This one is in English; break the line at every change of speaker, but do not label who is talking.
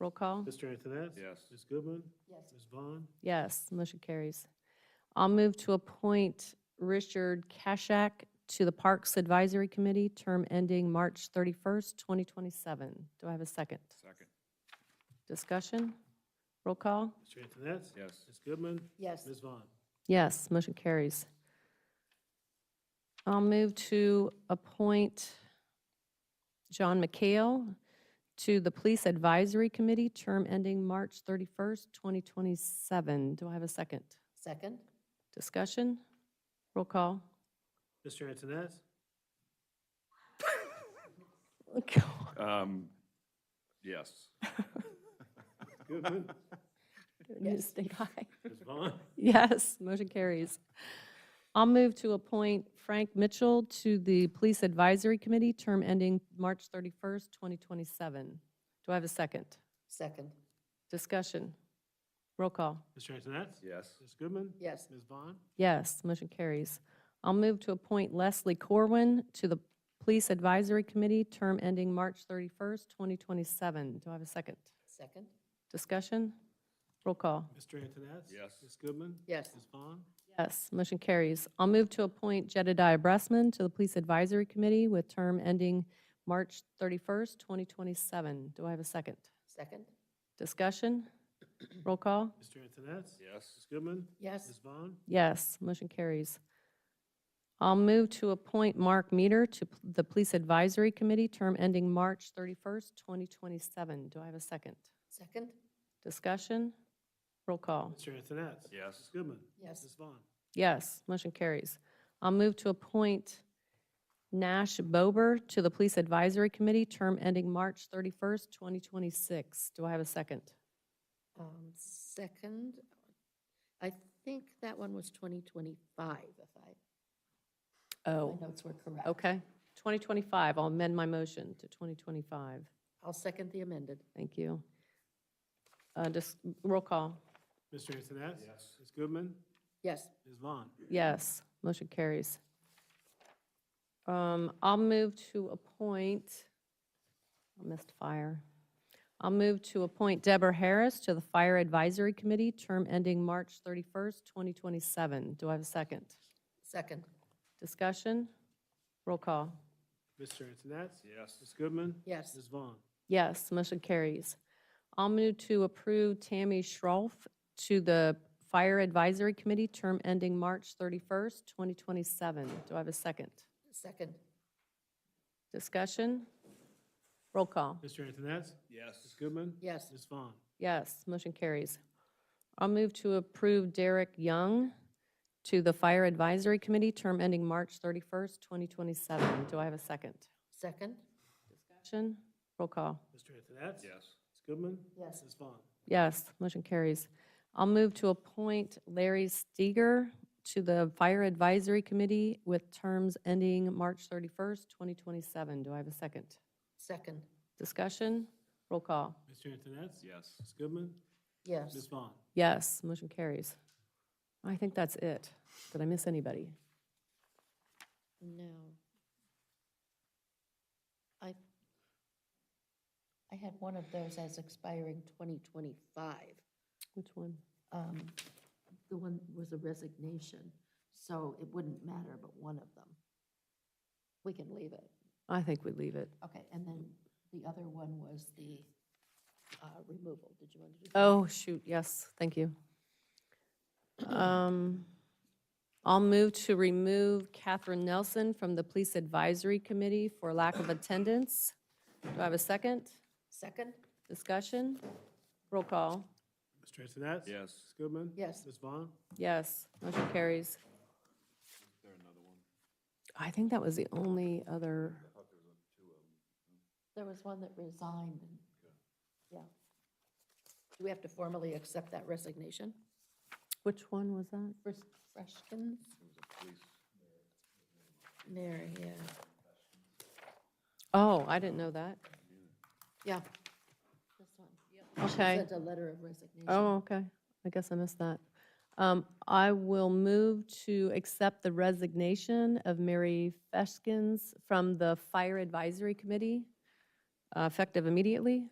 Roll call?
Mr. Antoness?
Yes.
Ms. Goodman? Yes. Ms. Vaughn?
Yes, motion carries. I'll move to appoint Richard Kashak to the Parks Advisory Committee, term ending March 31st, 2027. Do I have a second?
Second.
Discussion? Roll call?
Mr. Antoness?
Yes.
Ms. Goodman?
Yes.
Ms. Vaughn?
Yes, motion carries. I'll move to appoint John McHale to the Police Advisory Committee, term ending March 31st, 2027. Do I have a second?
Second?
Discussion? Roll call?
Mr. Antoness?
Um, yes.
Goodman?
Yes.
Mistake high.
Ms. Vaughn?
Yes, motion carries. I'll move to appoint Frank Mitchell to the Police Advisory Committee, term ending March 31st, 2027. Do I have a second?
Second?
Discussion. Roll call.
Mr. Antoness?
Yes.
Ms. Goodman?
Yes.
Ms. Vaughn?
Yes, motion carries. I'll move to appoint Leslie Corwin to the Police Advisory Committee, term ending March 31st, 2027. Do I have a second?
Second?
Discussion. Roll call.
Mr. Antoness?
Yes.
Ms. Goodman?
Yes.
Ms. Vaughn?
Yes, motion carries. I'll move to appoint Jedediah Bressman to the Police Advisory Committee with term ending March 31st, 2027. Do I have a second?
Second?
Discussion? Roll call?
Mr. Antoness?
Yes.
Ms. Goodman?
Yes.
Ms. Vaughn?
Yes, motion carries. I'll move to appoint Mark Meter to p- the Police Advisory Committee, term ending March 31st, 2027. Do I have a second?
Second?
Discussion? Roll call?
Mr. Antoness?
Yes.
Ms. Goodman?
Yes.
Ms. Vaughn?
Yes, motion carries. I'll move to appoint Nash Bober to the Police Advisory Committee, term ending March 31st, 2026. Do I have a second?
Um, Second? I think that one was 2025, if I, my
Oh,
notes were correct.
okay. 2025, I'll amend my motion to 2025.
I'll second the amended.
Thank you. Uh, Just roll call.
Mr. Antoness?
Yes.
Ms. Goodman?
Yes.
Ms. Vaughn?
Yes, motion carries. Um, I'll move to appoint, I missed fire. I'll move to appoint Deborah Harris to the Fire Advisory Committee, term ending March 31st, 2027. Do I have a second?
Second?
Discussion? Roll call.
Mr. Antoness?
Yes.
Ms. Goodman?
Yes.
Ms. Vaughn?
Yes, motion carries. I'll move to approve Tammy Schroff to the Fire Advisory Committee, term ending March 31st, 2027. Do I have a second?
Second?
Discussion? Roll call.
Mr. Antoness? Ms.
Yes.
Goodman?
Yes.
Ms. Vaughn?
Yes, motion carries. I'll move to approve Derek Young to the Fire Advisory Committee, term ending March 31st, 2027. Do I have a second?
Second?
Discussion? Roll call.
Mr. Antoness?
Yes.
Ms. Goodman?
Yes.
Ms. Vaughn?
Yes, motion carries. I'll move to appoint Larry Steger to the Fire Advisory Committee with terms ending March 31st, 2027. Do I have a second?
Second?
Discussion? Roll call.
Mr. Antoness?
Yes.
Ms. Goodman? Ms.
Yes.
Vaughn?
Yes, motion carries. I think that's it. Did I miss anybody?
No. I, I had one of those as expiring 2025.
Which one?
um, the one was a resignation, so it wouldn't matter but one of them. We can leave it.
I think we leave it.
Okay, and then the other one was the uh, removal. Did you want to do? that?
Oh, shoot, yes, thank you. Um, I'll move to remove Catherine Nelson from the Police Advisory Committee for lack of attendance. Do I have a second?
Second?
Discussion? Roll call.
Mr. Antoness?
Yes.
Ms. Goodman?
Yes.
Ms. Vaughn?
Yes, motion carries. I think that was the only other,
There was one that resigned. and- Yeah. Do we have to formally accept that resignation?
which one was that?
Fres- Freshkins? Mary, yeah.
Oh, I didn't know that.
Yeah. This one. She
Okay.
Sent a letter of resignation.
Oh, okay. I guess I missed that. Um, I will move to accept the resignation of Mary Feshkins from the Fire Advisory Committee, uh, effective immediately.